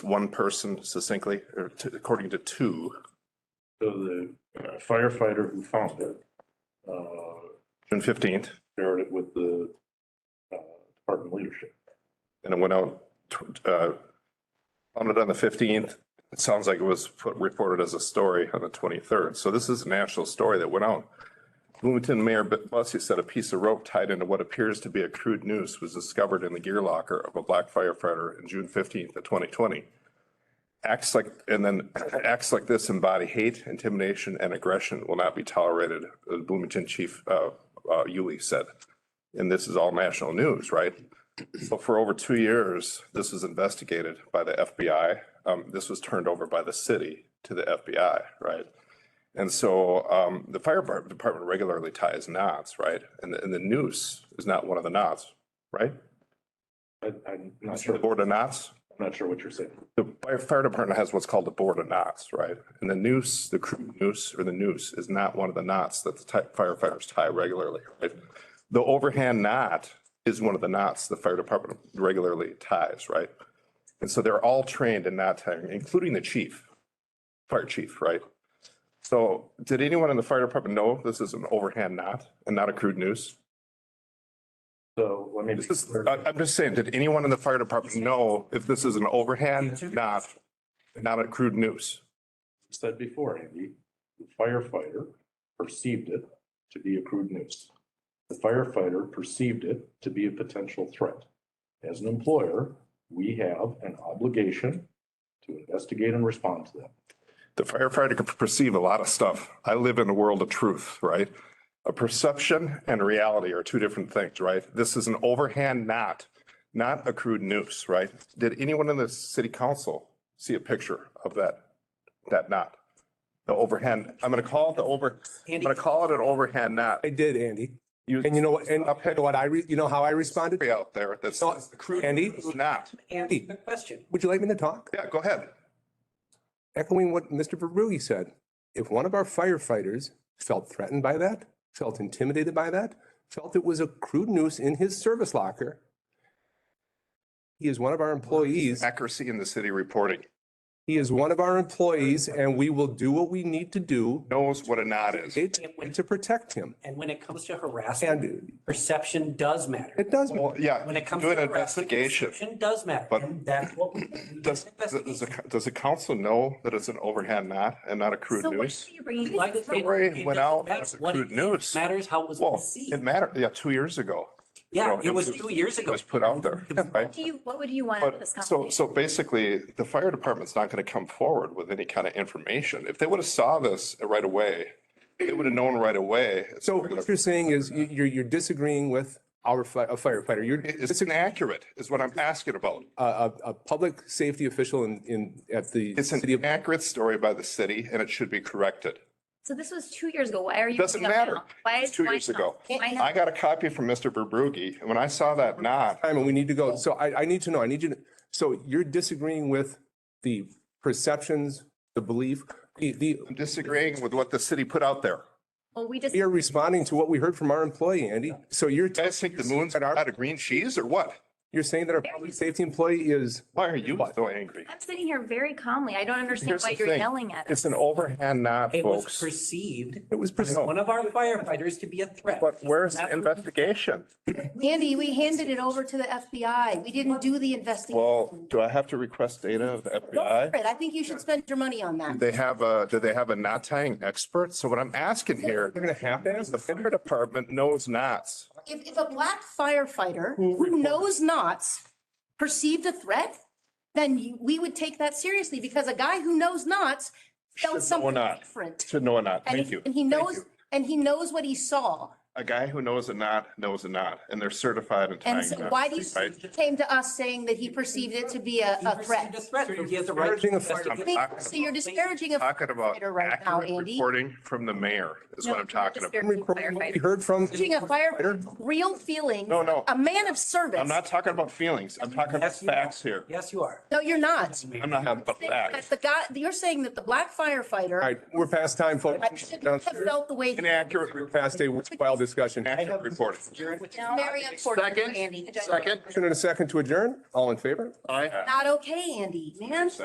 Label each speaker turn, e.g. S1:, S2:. S1: one person succinctly, or t- according to two,
S2: So the uh, firefighter who found it, uh,
S1: June fifteenth,
S2: shared it with the, uh, department leadership.
S1: and it went out, tw- uh, found it on the fifteenth. It sounds like it was put, reported as a story on the twenty-third. So this is a national story that went out. Bloomington Mayor B- Bussey said a piece of rope tied into what appears to be a crude noose was discovered in the gear locker of a black firefighter in June fifteenth of twenty twenty. Acts like, and then acts like this embody hate, intimidation, and aggression will not be tolerated, uh, Bloomington Chief, uh, uh, Yuli said. And this is all national news, right? So for over two years, this was investigated by the FBI. Um, this was turned over by the city to the FBI, right? And so, um, the fire bar- department regularly ties knots, right? And the, and the noose is not one of the knots, right?
S2: I, I'm not
S1: The
S2: sure,
S1: board of knots?
S2: I'm not sure what you're saying.
S1: The fire- fire department has what's called a board of knots, right? And the noose, the crude noose or the noose is not one of the knots that the ti- firefighters tie regularly, right? The overhand knot is one of the knots the fire department regularly ties, right? And so they're all trained in knot tying, including the chief, fire chief, right? So did anyone in the fire department know this is an overhand knot and not a crude noose?
S2: So let me. be
S1: This is,
S2: clear.
S1: I- I'm just saying, did anyone in the fire department know if this is an overhand knot, not a crude noose?
S2: said before, Andy, the firefighter perceived it to be a crude noose. The firefighter perceived it to be a potential threat. As an employer, we have an obligation to investigate and respond to that.
S1: The firefighter can perceive a lot of stuff. I live in a world of truth, right? A perception and reality are two different things, right? This is an overhand knot, not a crude noose, right? Did anyone in the city council see a picture of that, that knot? The overhand, I'm gonna call it the over, I'm gonna call it an overhand knot.
S3: I did, Andy.
S1: You,
S3: And you know what, and you know what I, re- you know how I responded?
S1: out there, that's
S3: No,
S1: a crude
S3: Andy?
S1: knot.
S4: Andy, the question.
S3: Would you like me to talk?
S1: Yeah, go ahead.
S3: Echoing what Mr. Verbrugge said, if one of our firefighters felt threatened by that, felt intimidated by that, felt it was a crude noose in his service locker, he is one of our employees.
S1: Accuracy in the city reporting
S3: He is one of our employees and we will do what we need to do
S1: knows what a knot is.
S3: it- to protect him.
S4: And when it comes to harassment,
S3: And
S4: perception does matter.
S3: it does,
S1: Well, Oh, yeah.
S4: When it comes
S1: Do
S4: to
S1: an
S4: harassment,
S1: investigation.
S4: perception does matter.
S1: But
S4: And that's what we. we
S1: Does,
S4: investigate.
S1: does, the- does the council know that it's an overhand knot and not a crude
S5: So what
S1: noose?
S5: are you bringing?
S4: Like
S5: this
S4: it-
S5: up?
S4: it
S1: Ray
S4: doesn't
S1: went out
S4: matter
S1: as a
S4: what it
S1: crude
S4: is.
S1: news.
S4: Matters how it was
S1: Well,
S4: perceived.
S1: it mattered, yeah, two years ago. you
S4: Yeah,
S1: know,
S4: it was two years
S1: It
S4: ago.
S1: was put out there,
S5: What
S1: right?
S5: Do you, what would you want out of
S1: But
S5: this
S1: so,
S5: conversation?
S1: so basically, the fire department's not going to come forward with any kind of information. If they would have saw this right away, they would have known right away. It's
S3: so
S1: not gonna-
S3: what you're saying is you- you're, you're disagreeing with our fi- a firefighter. You're
S1: It's inaccurate is what I'm asking about.
S3: a, a, a public safety official in, in, at the
S1: It's an
S3: city of,
S1: inaccurate story by the city and it should be corrected.
S5: So this was two years ago. Why are you?
S1: Doesn't
S5: bringing it up
S1: matter.
S5: now? Why is?
S1: Two
S5: why
S1: years
S5: now?
S1: ago.
S5: Why now?
S1: I got a copy from Mr. Verbrugge and when I saw that knot,
S3: time and we need to go. So I, I need to know, I need you to, so you're disagreeing with the perceptions, the belief, the, the,
S1: I'm disagreeing with what the city put out there.
S5: Well, we just,
S3: you're responding to what we heard from our employee, Andy. So you're,
S1: You guys think the moon's out of green cheese or what?
S3: you're saying that our public safety employee is,
S1: Why are you so angry?
S5: I'm sitting here very calmly. I don't understand
S1: Here's
S5: why
S1: the
S5: you're
S1: thing.
S5: yelling at us.
S1: It's an overhand knot,
S4: It was
S1: folks.
S4: perceived
S3: it was,
S4: as
S3: pres-
S4: one of our firefighters to be a threat.
S1: But where's the
S4: That-
S1: investigation?
S6: Andy, we handed it over to the FBI. We didn't do the investigation.
S1: Well, do I have to request data of the FBI?
S6: I think you should spend your money on that.
S1: They have a, do they have a knot tying expert? So what I'm asking here,
S3: they're gonna have to ask
S1: the
S3: the
S1: fire department knows knots.
S6: If, if a black firefighter who knows knots perceived a threat, then you- we would take that seriously because a guy who knows knots
S1: Should know
S6: felt something
S1: not.
S6: different.
S1: Should know a knot.
S6: And
S1: Thank
S6: he-
S1: you.
S6: And he
S1: Thank
S6: knows,
S1: you.
S6: and he knows what he saw.
S1: A guy who knows a knot knows a knot and they're certified in
S6: And
S1: tying
S6: so
S1: knots.
S6: why do you,
S1: right?
S6: came to us saying that he perceived it to be a,
S4: He
S6: a
S4: perceived
S6: threat?
S4: a threat, so he has a right to
S3: Encouraging a fire-
S4: investigate.
S6: Think- So you're disparaging a
S1: Talking about
S6: firefighter right now,
S1: accurate
S6: Andy.
S1: reporting from the mayor is
S5: No,
S1: what I'm
S5: you're
S1: talking about.
S5: disparaging
S3: we
S5: firefighters.
S3: heard from,
S6: Teaching a firefighter real feelings.
S1: No, no.
S6: A man of service.
S1: I'm not talking about feelings. I'm talking about
S4: Yes, you are.
S1: facts here.
S4: Yes, you are.
S6: No, you're not.
S1: I'm not having about
S6: That
S1: facts.
S6: The guy, you're saying that the black
S3: all
S6: firefighter
S3: right, we're past time, folks.
S6: shouldn't have felt the way. he-
S1: Inaccurate.
S3: Past a wild discussion.
S1: Action reporting.
S7: Which is
S6: Very unfortunate,
S7: Second,
S6: Andy.
S7: second,
S3: Motion and a second to adjourn. All in favor?
S7: aye.
S6: Not okay, Andy, man.